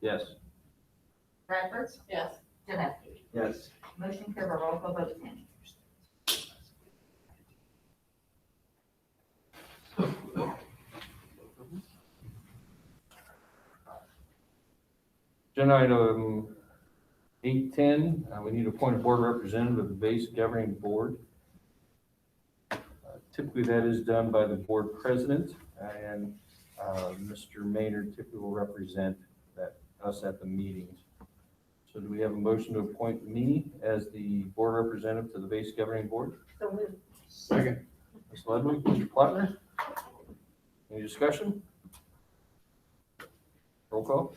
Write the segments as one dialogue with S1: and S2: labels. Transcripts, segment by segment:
S1: Yes.
S2: Bradford,
S3: Yes.
S2: Janeski.
S1: Yes.
S2: Motion carried, roll call vote, Tammy.
S1: Agenda item eight ten, uh, we need to appoint a board representative of the base governing board. Uh, Typically, that is done by the board president, and uh, Mr. Maynard typically will represent that, us at the meetings. So do we have a motion to appoint me as the board representative to the base governing board?
S3: So moved.
S4: Second.
S1: Ms. Ludwig, Mr. Plattner? Any discussion? Roll call?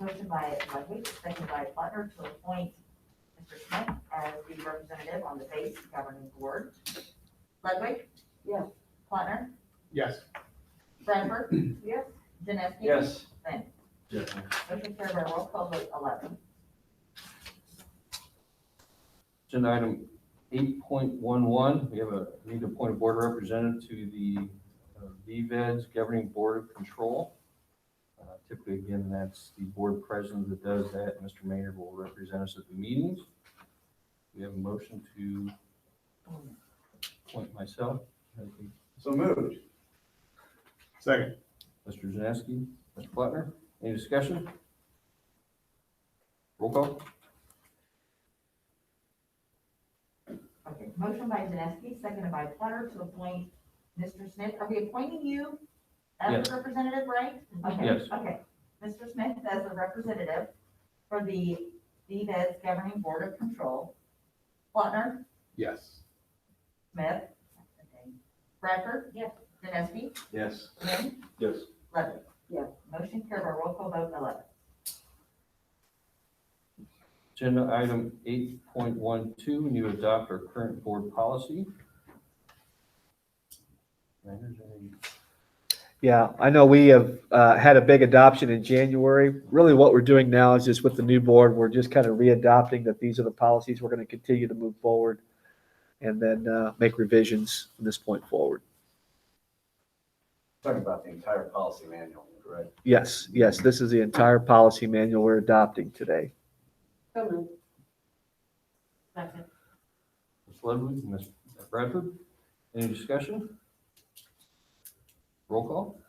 S2: Motion by Ludwig, second by Butler to appoint Mr. Smith as the representative on the base governing board. Ludwig?
S3: Yes.
S2: Plattner?
S4: Yes.
S2: Bradford?
S3: Yes.
S2: Janeski? Lynn?
S1: Yes.
S2: Motion carried, roll call vote, eleven.
S1: Agenda item eight point one one, we have a, need to appoint a board representative to the uh, VED's Governing Board of Control. Uh, Typically, again, that's the board president that does that. Mr. Maynard will represent us at the meetings. We have a motion to appoint myself,
S4: So moved. Second.
S1: Mr. Janeski, Mr. Plattner. Any discussion? Roll call?
S2: Okay, motion by Janeski, seconded by Platter to appoint Mr. Smith. Are we appointing you as
S1: Yes.
S2: the representative, right? Okay,
S1: Yes.
S2: Okay, Mr. Smith as the representative for the E DVED's Governing Board of Control. Plattner,
S4: Yes.
S2: Smith. Bradford. Yes. Janeski.
S4: Yes.
S2: Lynn.
S1: Yes.
S2: Ludwig.
S3: Yes.
S2: Motion carried by roll call vote eleven.
S1: Agenda item eight point one two, and you adopt our current board policy. Landers, any-
S5: Yeah, I know we have uh, had a big adoption in January. Really, what we're doing now is just with the new board, we're just kind of re-adopting that these are the policies we're going to continue to move forward and then uh, make revisions from this point forward.
S6: Talking about the entire policy manual, correct?
S5: Yes, yes, this is the entire policy manual we're adopting today.
S3: So moved.
S2: Second.
S1: Ms. Ludwig, Ms. Bradford, any discussion? Roll call?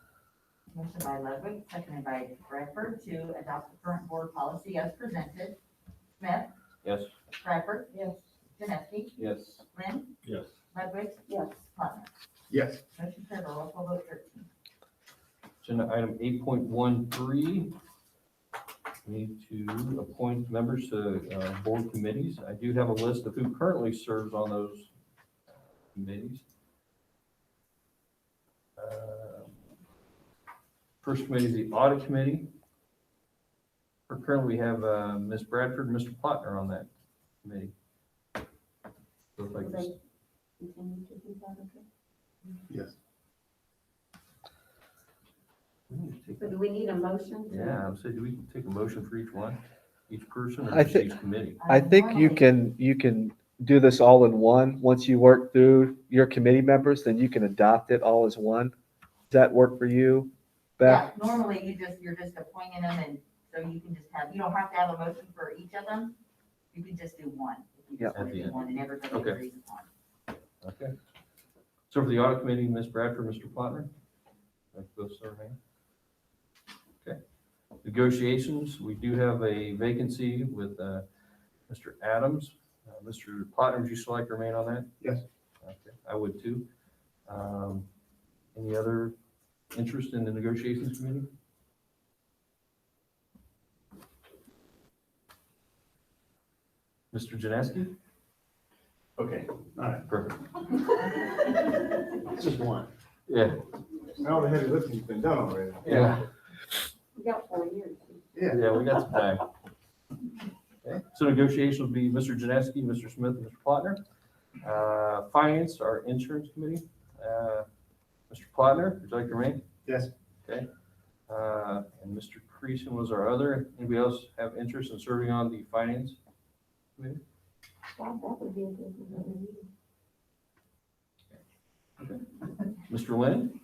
S2: Motion by Ludwig, seconded by Bradford to adopt the current board policy as presented. Smith,
S1: Yes.
S2: Bradford,
S3: Yes.
S2: Janeski,
S1: Yes.
S2: Lynn,
S1: Yes.
S2: Ludwig,
S3: Yes.
S2: Plattner.
S4: Yes.
S2: Motion carried, roll call vote thirteen.
S1: Agenda item eight point one three. Need to appoint members to uh, board committees. I do have a list of who currently serves on those uh, committees. Uh, First committee is the audit committee. For Currently, we have uh, Ms. Bradford, and Mr. Plattner on that committee. Looks like it's-
S3: Continue to do that, okay?
S4: Yes.
S1: we need to take
S3: So do we need a motion? to-
S1: Yeah, I'm saying, do we take a motion for each one, each person or
S5: I
S1: just
S5: thi-
S1: each committee?
S5: I think you can, you can do this all in one. Once you work through your committee members, then you can adopt it all as one. Does that work for you, Beth?
S2: Yeah, normally you just, you're just appointing them and so you can just have, you don't have to have a motion for each of them. You can just do one. if you just
S5: Yeah.
S2: wanna
S1: At the
S2: do
S1: end.
S2: One and everybody
S1: Okay.
S2: agrees upon.
S1: Okay. So for the audit committee, Ms. Bradford, Mr. Plattner? That's both serving. Okay. Negotiations, we do have a vacancy with uh, Mr. Adams. Uh, Mr. Plattner, would you still like to remain on that?
S4: Yes.
S1: Okay, I would too. Um, Any other interest in the negotiations committee? Mr. Janeski?
S6: Okay,
S1: Perfect.
S4: It's just one.
S1: Yeah,
S4: All the heavy lifting's been done already.
S1: yeah.
S3: We got four years.
S4: Yeah.
S1: Yeah, we got some time. Okay, So negotiations will be Mr. Janeski, Mr. Smith, and Mr. Plattner. Uh, Finance, our insurance committee. Uh, Mr. Plattner, would you like to remain?
S4: Yes.
S1: Okay. Uh, And Mr. Creason was our other. Anybody else have interest in serving on the finance?
S3: Bob, that would be a good one.
S1: Mr. Lynn?